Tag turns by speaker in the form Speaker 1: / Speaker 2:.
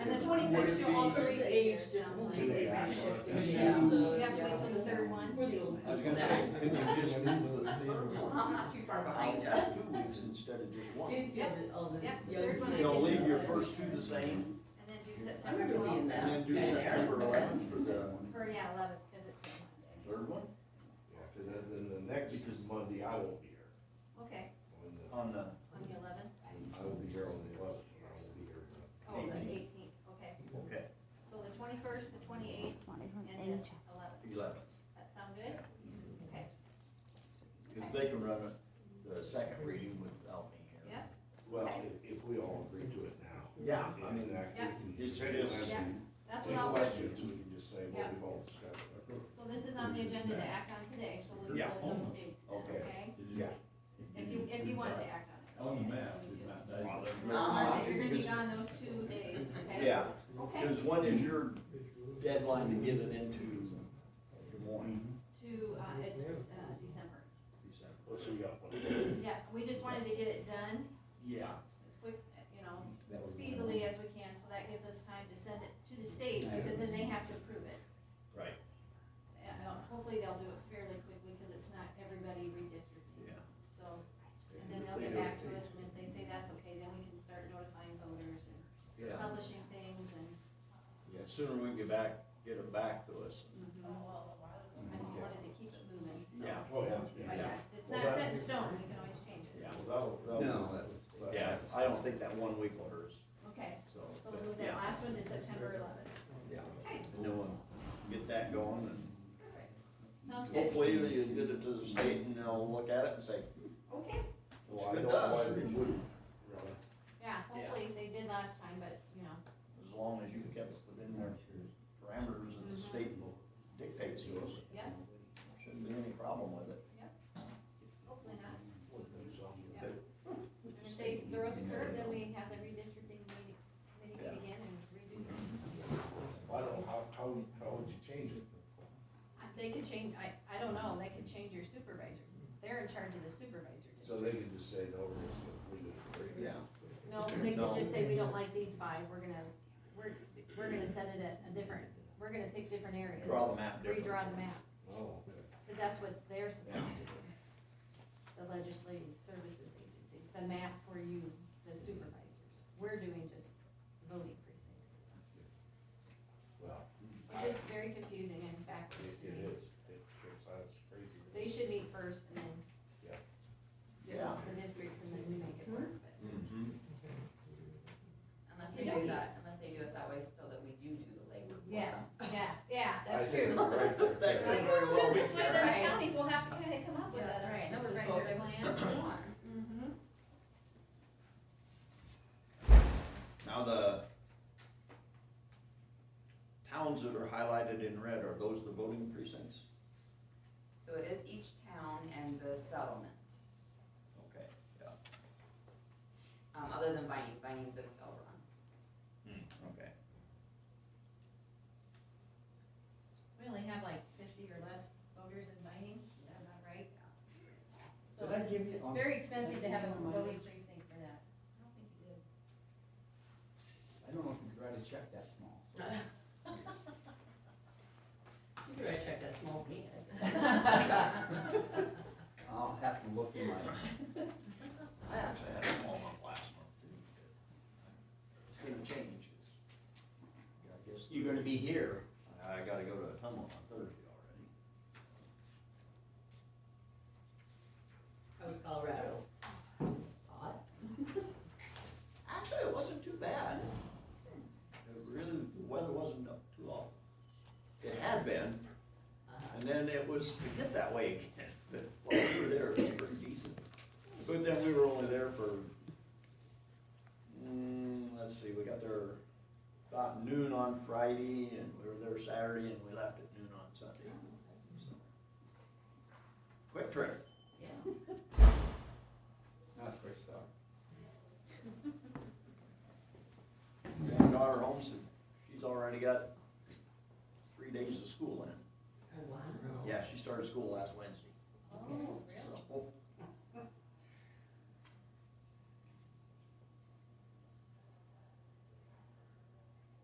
Speaker 1: Because
Speaker 2: would
Speaker 1: they're
Speaker 2: it
Speaker 1: still all
Speaker 2: be-
Speaker 1: three
Speaker 3: Because the
Speaker 1: years.
Speaker 3: age difference
Speaker 2: Can they actually-
Speaker 1: Yeah,
Speaker 3: so-
Speaker 1: you have to wait till the third one.
Speaker 3: We're the old.
Speaker 4: I was gonna say, couldn't you just move the third
Speaker 1: Well,
Speaker 4: one
Speaker 1: I'm not too far behind you.
Speaker 4: out two weeks instead of just one?
Speaker 3: It's good, all the
Speaker 1: Yeah,
Speaker 3: young
Speaker 1: third one I
Speaker 3: people.
Speaker 2: You'll leave your first two the same,
Speaker 1: And then do
Speaker 3: I
Speaker 1: September
Speaker 3: remember being
Speaker 1: twelfth,
Speaker 3: that.
Speaker 2: and then do
Speaker 3: Okay.
Speaker 2: September eleventh for the
Speaker 1: or yeah, eleventh, cause it's a Monday.
Speaker 2: third one,
Speaker 5: Yeah, cause then, then the next Monday I won't be here.
Speaker 1: Okay,
Speaker 5: On the-
Speaker 2: on the,
Speaker 1: on the eleventh?
Speaker 5: I will be here on the eleventh, and I will be here.
Speaker 1: Oh, the
Speaker 2: Eighteenth.
Speaker 1: eighteenth, okay.
Speaker 2: okay,
Speaker 1: So the twenty-first, the twenty-eighth, and the eleventh.
Speaker 2: eleventh.
Speaker 1: That sound good? Okay,
Speaker 2: Cause they can run it- the second reading without me here.
Speaker 1: yeah,
Speaker 5: Well, if, if we all agree to it now.
Speaker 2: Yeah,
Speaker 5: And
Speaker 2: I mean,
Speaker 5: then I can-
Speaker 2: It's
Speaker 5: if anyone
Speaker 2: just-
Speaker 5: has
Speaker 1: Yeah.
Speaker 5: any
Speaker 1: that's what I'll, so
Speaker 5: questions, we can just say, well,
Speaker 1: Yeah.
Speaker 5: we've all discussed it.
Speaker 1: this is on the agenda to act on today, so we'll go
Speaker 2: Yeah.
Speaker 1: those dates then,
Speaker 2: Okay. Oh,
Speaker 1: okay?
Speaker 2: Yeah.
Speaker 1: If you, if you want to act on it.
Speaker 6: On the
Speaker 1: okay?
Speaker 6: map,
Speaker 1: So we
Speaker 6: it's
Speaker 1: do.
Speaker 6: not that.
Speaker 2: Well, there's-
Speaker 1: Uh, you're gonna be gone those two days, okay?
Speaker 2: Yeah,
Speaker 1: Okay,
Speaker 2: cause when is your deadline to get it into Des Moines?
Speaker 1: to, uh, it's, uh, December.
Speaker 2: December?
Speaker 5: Let's see, we got one.
Speaker 1: Yeah, we just wanted to get it done
Speaker 2: Yeah,
Speaker 1: as quick, you know, speedily as we can, so that gives us time to send it to the state, because then they have to approve it.
Speaker 2: right,
Speaker 1: And uh, hopefully they'll do it fairly quickly, because it's not everybody
Speaker 2: yeah.
Speaker 1: redistricting, so, and then they'll get back to us, and if they say that's okay, then we can start notifying voters and
Speaker 2: Yeah,
Speaker 1: publishing things and,
Speaker 2: yeah, sooner we can get back, get it back to us.
Speaker 1: oh, I just wanted to keep it moving, so.
Speaker 2: Yeah.
Speaker 5: Oh, yeah.
Speaker 1: But yeah, it's
Speaker 5: Well,
Speaker 1: not
Speaker 5: that-
Speaker 1: set in stone, we can always change it.
Speaker 2: Yeah.
Speaker 5: Well, that'll, that'll.
Speaker 4: No, that was-
Speaker 5: that'll-
Speaker 2: Yeah, I don't think that one week will hurt us,
Speaker 1: Okay,
Speaker 2: so.
Speaker 1: so
Speaker 2: but
Speaker 1: we'll move that
Speaker 2: yeah,
Speaker 1: last one to September eleventh.
Speaker 2: Yeah,
Speaker 1: Okay,
Speaker 2: and then we'll get that going and
Speaker 1: perfect. Sounds good.
Speaker 2: hopefully you get it to the state and they'll look at it and say,
Speaker 1: Okay,
Speaker 5: Well, I
Speaker 2: It
Speaker 5: don't know why
Speaker 2: does.
Speaker 5: they wouldn't, really.
Speaker 1: yeah, hopefully they did last time, but, you know,
Speaker 2: as long as you kept it within their parameters that
Speaker 1: Mm-hmm.
Speaker 2: the state will dictate to us,
Speaker 1: yeah,
Speaker 2: shouldn't be any problem with it.
Speaker 1: hopefully not.
Speaker 5: So,
Speaker 1: Yeah. And If they throw us a curve, then we have the redistricting meeting, committee meet again and redo things.
Speaker 5: I don't know, how, how, would- how would you change it?
Speaker 1: Uh, They could change, I, I don't know, they could change your supervisor. They're in charge of the supervisor
Speaker 5: So they
Speaker 1: districts.
Speaker 5: could just say, no, we're just gonna leave it. at three.
Speaker 2: Yeah.
Speaker 1: No, they
Speaker 2: No.
Speaker 1: could just say, we don't like these five, we're gonna, we're, we're gonna set it at a different, we're gonna pick different areas.
Speaker 2: Draw the map different.
Speaker 1: Redraw the map,
Speaker 5: Oh, okay.
Speaker 1: because that's what they're supposed to do. The legislative services agency, the map for you, the supervisors. We're doing just voting precincts.
Speaker 5: Well, I-
Speaker 1: Which is very confusing and backwards
Speaker 5: it
Speaker 1: to
Speaker 5: it
Speaker 1: me.
Speaker 5: is, it, it's, that's crazy.
Speaker 1: They should meet first and then
Speaker 5: Yeah.
Speaker 1: give us the districts and then we make it work, but.
Speaker 2: Mhm.
Speaker 3: Unless
Speaker 1: You
Speaker 3: they
Speaker 1: don't
Speaker 3: do that, unless they do it that way so that we do do the legwork. for
Speaker 1: Yeah,
Speaker 3: them.
Speaker 1: yeah, yeah,
Speaker 5: I
Speaker 1: that's true.
Speaker 5: think you're right there.
Speaker 2: That
Speaker 1: Like,
Speaker 2: could
Speaker 1: oh,
Speaker 2: very
Speaker 1: we'll
Speaker 2: well
Speaker 1: do
Speaker 2: be
Speaker 1: it this way, then
Speaker 3: Right.
Speaker 1: the counties will have to kinda come up with
Speaker 3: That's
Speaker 1: a
Speaker 3: right, numbers go
Speaker 1: supervisor
Speaker 3: big,
Speaker 1: plan.
Speaker 3: step one.
Speaker 1: Mm-hmm.
Speaker 2: Now the towns that are highlighted in red, are those the voting precincts?
Speaker 3: So it is each town and the settlement,
Speaker 2: Okay, yeah,
Speaker 3: um, other than Vining, Vining's in Elron.
Speaker 2: Hmm, okay.
Speaker 1: We only have like fifty or less voters in mining, is that about right? So
Speaker 3: Did I
Speaker 1: it's,
Speaker 3: give you-
Speaker 1: it's very expensive to have a
Speaker 3: Did I give you my
Speaker 1: voting
Speaker 3: mileage?
Speaker 1: precinct for that. I don't think you did.
Speaker 7: I don't know if you could write a check that small, so.
Speaker 3: You could write check that small meeting.
Speaker 7: I'll have to look in my
Speaker 2: I actually had them all up last month. didn't I? It's gonna change. Yeah, I guess.
Speaker 7: You're gonna be here.
Speaker 2: I I gotta go to a tunnel on Thursday already.
Speaker 3: How's Colorado? Hot.
Speaker 2: Actually, it wasn't too bad. It really, the weather wasn't up too awful. It had been, and then it was to get that way again, but while we were there, it was pretty decent. But then we were only there for, mm, let's see, we got there about noon on Friday, and we were there Saturday, and we left at noon on Sunday. So, Quick trip.
Speaker 3: Yeah.
Speaker 7: That's great stuff.
Speaker 2: Granddaughter home, so she's already got three days of school in.
Speaker 3: Oh, wow.
Speaker 2: Yeah, she started school last Wednesday.
Speaker 3: Oh,